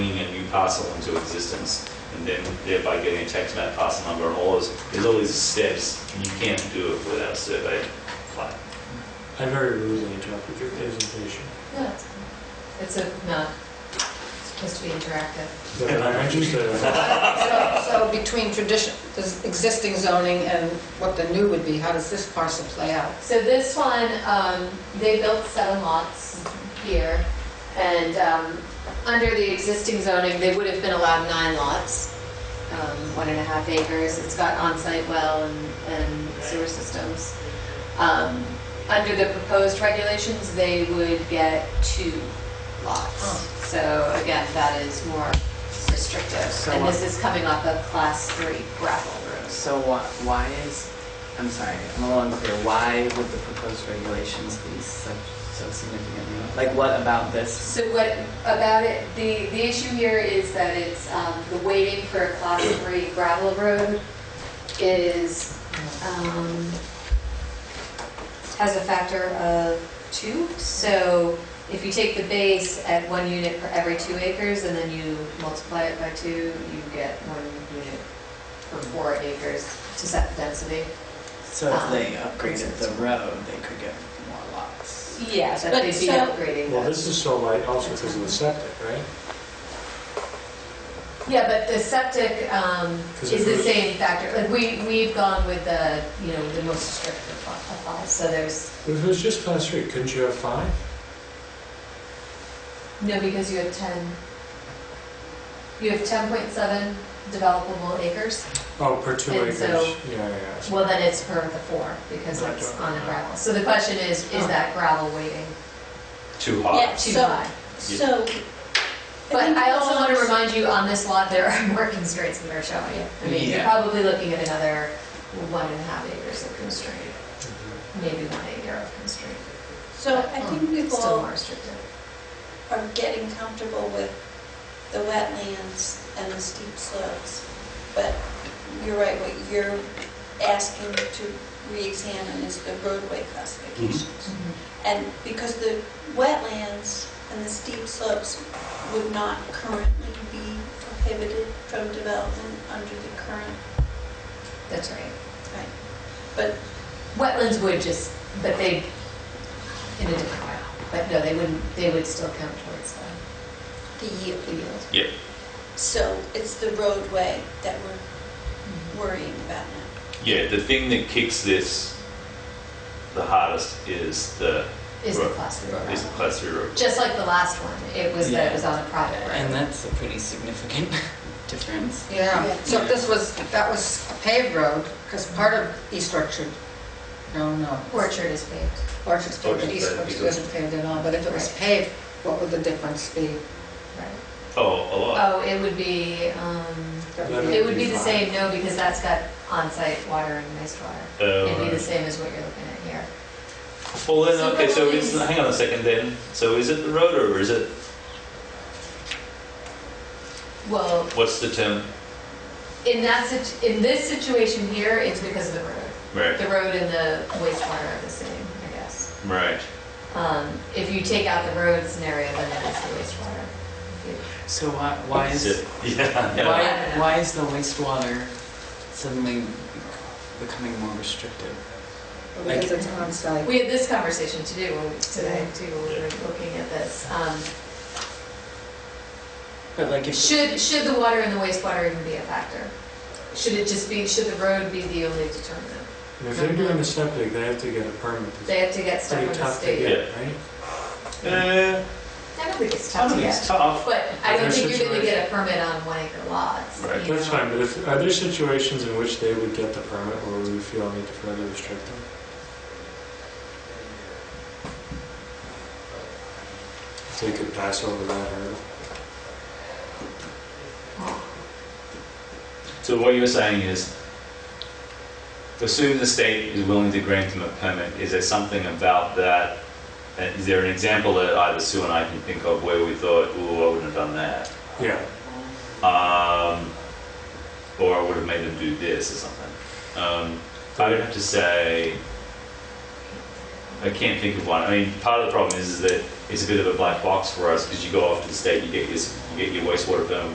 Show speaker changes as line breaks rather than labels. parcel into existence, and then thereby getting a tax map parcel number and all those, there's all these steps, and you can't do it without a survey plat.
I very rudely interrupted your presentation.
No, it's, fine. it's a, not, it's supposed to be interactive.
But I'm interested in that.
So so between tradition, the existing zoning and what the new would be, how does this parcel play out?
So this one, um, they built seven lots here, and, um, under the existing zoning, they would have been allowed nine lots, um, one and a half acres, it's got on-site well and, and sewer systems. Um, under the proposed regulations, they would get two
Huh.
lots. So again, that is more restrictive,
So
and
what-
this is coming off a class three gravel road.
So why, why is, I'm sorry, I'm a little unclear, why would the proposed regulations be so, so significantly? Like what about this?
So what about it, the, the issue here is that it's, um, the waiting for a class three gravel road is, um, has a factor of two. So if you take the base at one unit per every two acres and then you multiply it by two, you get one unit per four acres to set the density.
So if they
Um,
upgraded the road, they could get more lots.
Yeah, that
But
they'd be
so-
upgrading
Well,
that.
this is so light also because of the septic, right?
Yeah, but the septic um,
'Cause
is
it
the
was-
same factor. Like, we, we've gone with the, you know, the most restrictive fi- applies, so there's,
If it was just class three, couldn't you have five?
no, because you have 10, you have 10.7 developable acres.
Oh, per two
And
acres.
so-
Yeah, yeah, yeah.
Well, then it's per the four, because
Right,
it's
right,
on a
right.
gravel. So the question is, is
Oh.
that gravel weighting
Too high.
Yeah.
too
So-
high?
So.
But
think
I also want to
dogs-
remind you, on this lot, there are more constraints than they're showing. I mean, you're
Yeah.
probably looking at another one and a half acres of constraint,
Mm-hmm.
maybe one acre of constraint.
Oh, So I think
Um, Still more
people
restrictive.
are getting comfortable with the wetlands and the steep slopes. But you're right, what you're asking to re-examine is the roadway classifications. And because the wetlands and the steep slopes would not currently be prohibited from development under the current,
That's right.
right? But
Wetlands would just, but they, in a different way. But no, they wouldn't, they would still count towards the
the yield,
the yield.
Yep.
So it's the roadway that we're worrying about now.
Yeah, the thing that kicks this the hardest is the,
Is the
Right.
class three
is the
road.
class three road.
Just like the last one, it was that it was on a private
And
road.
that's a pretty significant difference.
Yeah, so if this was, if that was a paved road, because part of East Orchard, no, no.
Orchard is paved.
Orchard's paved,
Orchard's
East
paved,
Orchard
East Orchard.
isn't paved at all, but if it was paved, what would the difference be?
right?
Oh, a lot.
Oh, it would be, um,
That
it would be the same, no, because that's got on-site water and wastewater.
Oh,
It'd be the
right.
same as what you're looking at here.
Well, then,
So
okay, so
that
is,
means-
hang on a second then. So is it the road or is it,
Well,
what's the term?
in that, sit- in this situation here, it's because of the road.
Right,
The road and the wastewater are the same, I guess.
right.
Um, If you take out the road scenario, then it is the wastewater.
So why, why is,
Yeah, yeah.
why, why is the wastewater suddenly becoming more restrictive?
Because it's on site.
We had this conversation to do when- today, too, when we were looking at this. Um,
But like if.
Should, should the water and the wastewater even be a factor? Should it just be, should the road be the only determinant?
And if they're doing the septic, they have to get a permit.
They have to get
It's
stuff
pretty
from the
tough to
state.
get, right?
Uh,
I don't think it's
I
tough to
think it's
get,
tough.
but I don't
There's
think you're gonna
situation-
get a permit on one acre lots.
Right.
you
That's
know?
fine, but if, are there situations in which they would get the permit or would we feel a need to further restrict them? If they could pass over that hurdle?
So what you're saying is, assume the state is willing to grant them a permit, is there something about that? uh, Is there an example that either Sue and I can think of where we thought, ooh, I wouldn't have done that?
Yeah,
Um, or I would have made them do this or something. Um, I would have to say, I can't think of one. I mean, part of the problem is, is that it's a bit of a black box for us because you go off to the state, you get this, you get your wastewater permit,